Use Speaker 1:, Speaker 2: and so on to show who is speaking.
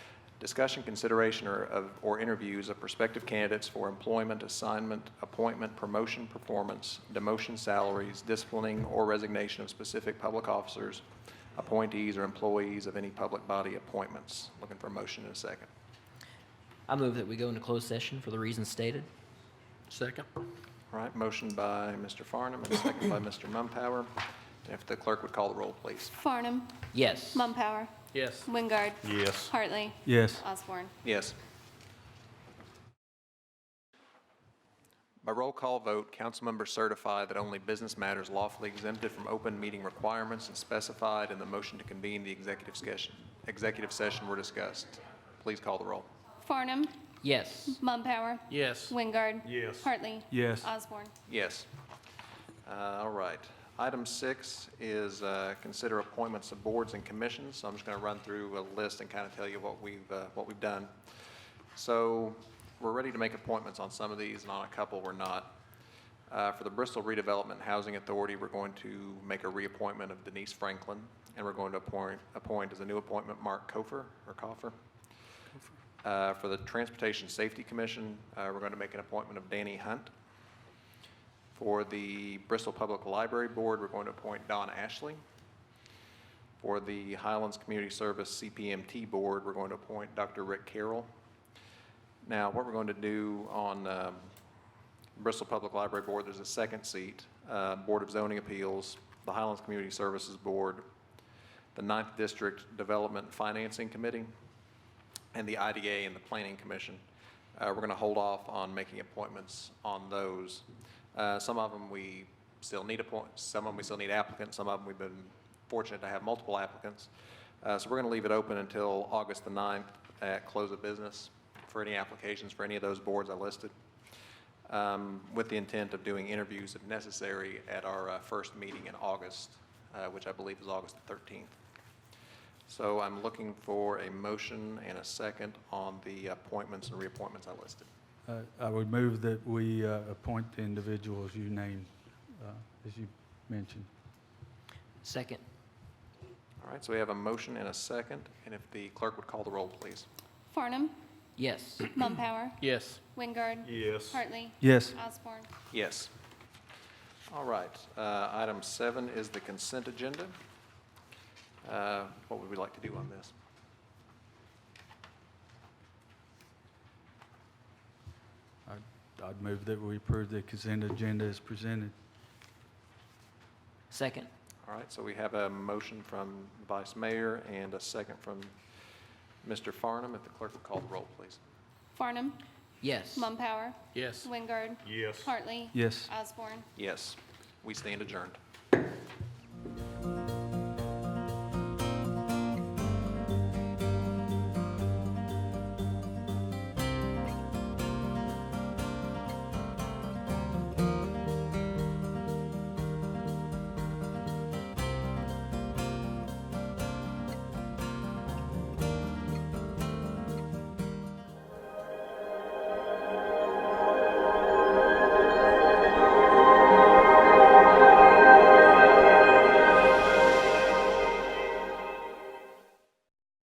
Speaker 1: discussion, consideration, or, of- or interviews of prospective candidates for employment, assignment, appointment, promotion, performance, demotion salaries, disciplining, or resignation of specific public officers, appointees, or employees of any public body appointments. Looking for a motion in a second.
Speaker 2: I move that we go into closed session for the reasons stated.
Speaker 3: Second.
Speaker 1: All right, motion by Mr. Farnum and second by Mr. Mumpower. If the clerk would call the roll, please.
Speaker 4: Farnum.
Speaker 2: Yes.
Speaker 4: Mumpower.
Speaker 3: Yes.
Speaker 4: Wingard.
Speaker 5: Yes.
Speaker 4: Hartley.
Speaker 5: Yes.
Speaker 4: Osborne.
Speaker 1: Yes. By roll call vote, council members certify that only business matters lawfully exempted from open meeting requirements and specified in the motion to convene the executive session, executive session were discussed. Please call the roll.
Speaker 4: Farnum.
Speaker 2: Yes.
Speaker 4: Mumpower.
Speaker 3: Yes.
Speaker 4: Wingard.
Speaker 5: Yes.
Speaker 4: Hartley.
Speaker 5: Yes.
Speaker 4: Osborne.
Speaker 1: Yes. Uh, All right. Item six is uh, consider appointments of boards and commissions. So I'm just going to run through a list and kind of tell you what we've, uh, what we've done. So we're ready to make appointments on some of these, and on a couple, we're not. Uh, For the Bristol Redevelopment and Housing Authority, we're going to make a reappointment of Denise Franklin, and we're going to appoint, appoint as a new appointment Mark Kofer, or Coffer. Uh, For the Transportation Safety Commission, uh, we're going to make an appointment of Danny Hunt. For the Bristol Public Library Board, we're going to appoint Don Ashley. For the Highlands Community Service CPMT Board, we're going to appoint Dr. Rick Carroll. Now, what we're going to do on um, Bristol Public Library Board, there's a second seat, uh, Board of Zoning Appeals, the Highlands Community Services Board, the Ninth District Development Financing Committee, and the IDA and the Planning Commission. Uh, We're going to hold off on making appointments on those. Uh, Some of them we still need appointments, some of them we still need applicants, some of them we've been fortunate to have multiple applicants. Uh, So we're going to leave it open until August the 9th at close of business for any applications for any of those boards I listed, um, with the intent of doing interviews if necessary at our uh, first meeting in August, uh, which I believe is August the 13th. So I'm looking for a motion and a second on the appointments and reappointments I listed.
Speaker 5: Uh, I would move that we uh, appoint the individuals you named, uh, as you mentioned.
Speaker 2: Second.
Speaker 1: All right, so we have a motion and a second, and if the clerk would call the roll, please.
Speaker 4: Farnum.
Speaker 2: Yes.
Speaker 4: Mumpower.
Speaker 3: Yes.
Speaker 4: Wingard.
Speaker 5: Yes.
Speaker 4: Hartley.
Speaker 5: Yes.
Speaker 4: Osborne.
Speaker 1: Yes. All right, uh, item seven is the consent agenda. Uh, What would we like to do on this?
Speaker 5: I'd- I'd move that we approve the consent agenda as presented.
Speaker 2: Second.
Speaker 1: All right, so we have a motion from Vice Mayor and a second from Mr. Farnum. If the clerk would call the roll, please.
Speaker 4: Farnum.
Speaker 2: Yes.
Speaker 4: Mumpower.
Speaker 3: Yes.
Speaker 4: Wingard.
Speaker 5: Yes.
Speaker 4: Hartley.
Speaker 5: Yes.
Speaker 4: Osborne.
Speaker 1: Yes, we stand adjourned.